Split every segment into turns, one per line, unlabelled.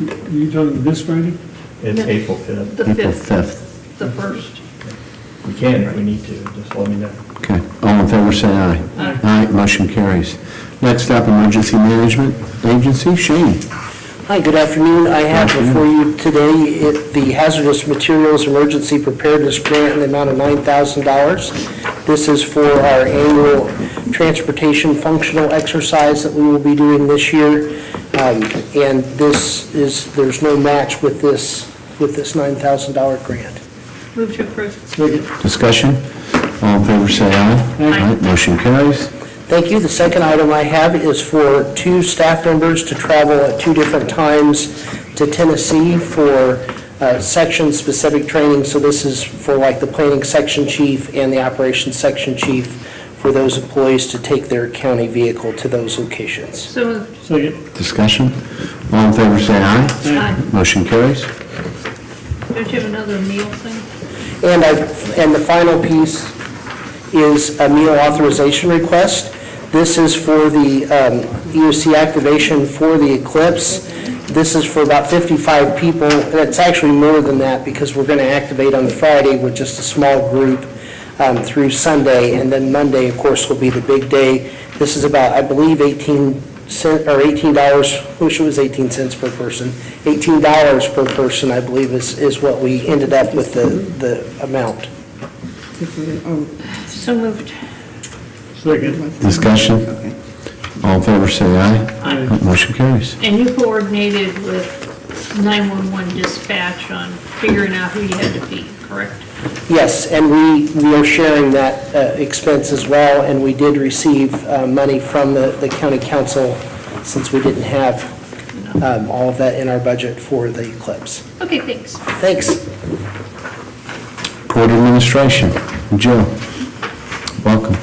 you talking this Friday?
It's
Yeah.
April 5th.
The
April
5th.
5th.
The first.
We can if we need to, just let me know.
Okay, all in favor, say aye.
Aye.
motion carries. Next up, Emergency Management Agency, Shane.
Hi, good afternoon. I have before you today it- the Hazardous Materials Emergency Preparedness Grant in the amount of $9,000. This is for our annual transportation functional exercise that we will be doing this year. Um, And this is, there's no match with this, with this $9,000 grant.
Move to approve.
Discussion? All in favor, say aye.
Aye.
motion carries.
Thank you. The second item I have is for two staff members to travel at two different times to Tennessee for uh, section-specific training. So this is for like the planning section chief and the operations section chief, for those employees to take their county vehicle to those locations.
So moved.
Second.
Discussion? All in favor, say aye.
Aye.
Motion carries.
Don't you have another meal thing?
And I, and the final piece is a meal authorization request. This is for the um, EOC activation for the Eclipse. This is for about 55 people, and it's actually more than that because we're going to activate on Friday with just a small group um, through Sunday, and then Monday, of course, will be the big day. This is about, I believe, 18 cent, or $18, wish it was 18 cents per person, $18 per person, I believe, is, is what we ended up with the, the amount.
So moved.
Second.
Discussion? All in favor, say aye.
Aye.
Motion carries.
And you coordinated with 911 dispatch on figuring out who you had to feed, correct?
Yes, and we, we are sharing that uh, expense as well, and we did receive uh, money from the, the county council since we didn't have um, all of that in our budget for the eclipse.
Okay, thanks.
Thanks.
Board Administration, Joe, welcome.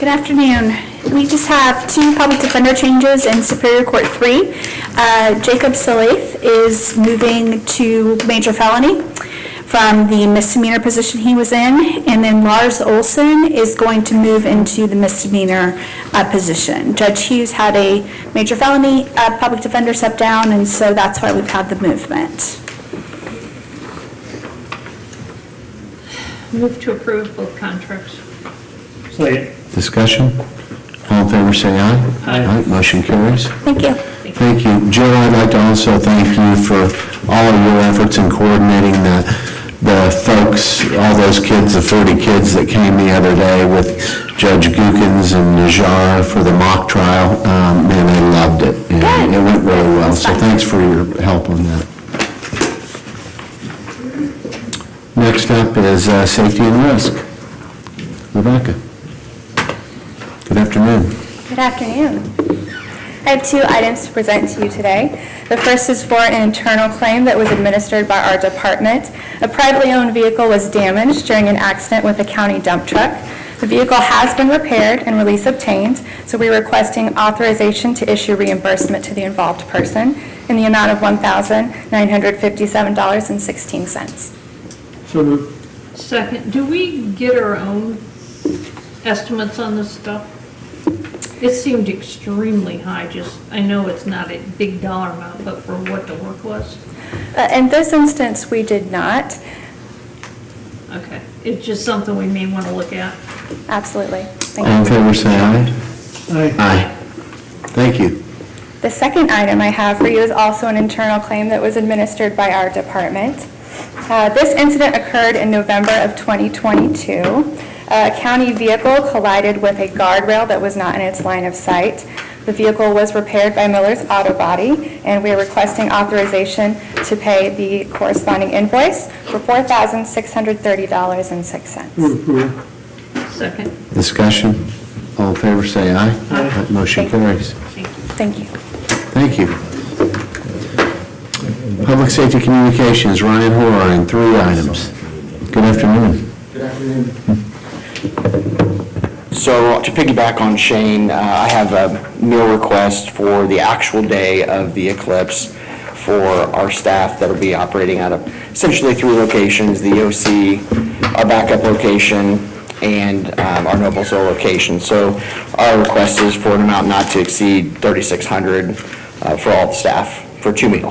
Good afternoon. We just have two public defender changes in Superior Court 3. Uh, Jacob Salif is moving to major felony from the misdemeanor position he was in, and then Lars Olson is going to move into the misdemeanor uh, position. Judge Hughes had a major felony uh, public defender step down, and so that's why we've had the movement.
Move to approve both contracts.
Second.
Discussion? All in favor, say aye.
Aye.
Motion carries.
Thank you.
Thank you. Jill, I'd like to also thank you for all of your efforts in coordinating the, the folks, all those kids, the 40 kids that came the other day with Judge Gookins and Najar for the mock trial. Um, Man, they loved it. and
Good.
It went really well, so
Fun.
thanks for your help on that. Next up is uh, safety and risk. Rebecca. Good afternoon.
Good afternoon. I have two items to present to you today. The first is for an internal claim that was administered by our department. A privately owned vehicle was damaged during an accident with a county dump truck. The vehicle has been repaired and release obtained, so we're requesting authorization to issue reimbursement to the involved person in the amount of $1,957.16.
So moved.
Second, do we get our own estimates on this stuff? It seemed extremely high, just, I know it's not a big dollar amount, but for what the work was,
Uh, In this instance, we did not.
okay. It's just something we may want to look at.
Absolutely. Thank you.
All in favor, say aye.
Aye.
Aye. Thank you.
The second item I have for you is also an internal claim that was administered by our department. Uh, This incident occurred in November of 2022. A county vehicle collided with a guardrail that was not in its line of sight. The vehicle was repaired by Miller's Auto Body, and we are requesting authorization to pay the corresponding invoice for $4,630.06.
Move approval.
Second,
Discussion? All in favor, say aye.
Aye.
That Motion carries.
thank you.
Thank you.
Thank you. Public Safety Communications, Ryan Horine, three items. Good afternoon.
So to piggyback on Shane, uh, I have a meal request for the actual day of the eclipse for our staff that'll be operating out of essentially three locations, the OC, our backup location, and um, our Noble Soul location. So our request is for an amount not to exceed 3,600 uh, for all the staff for two meals.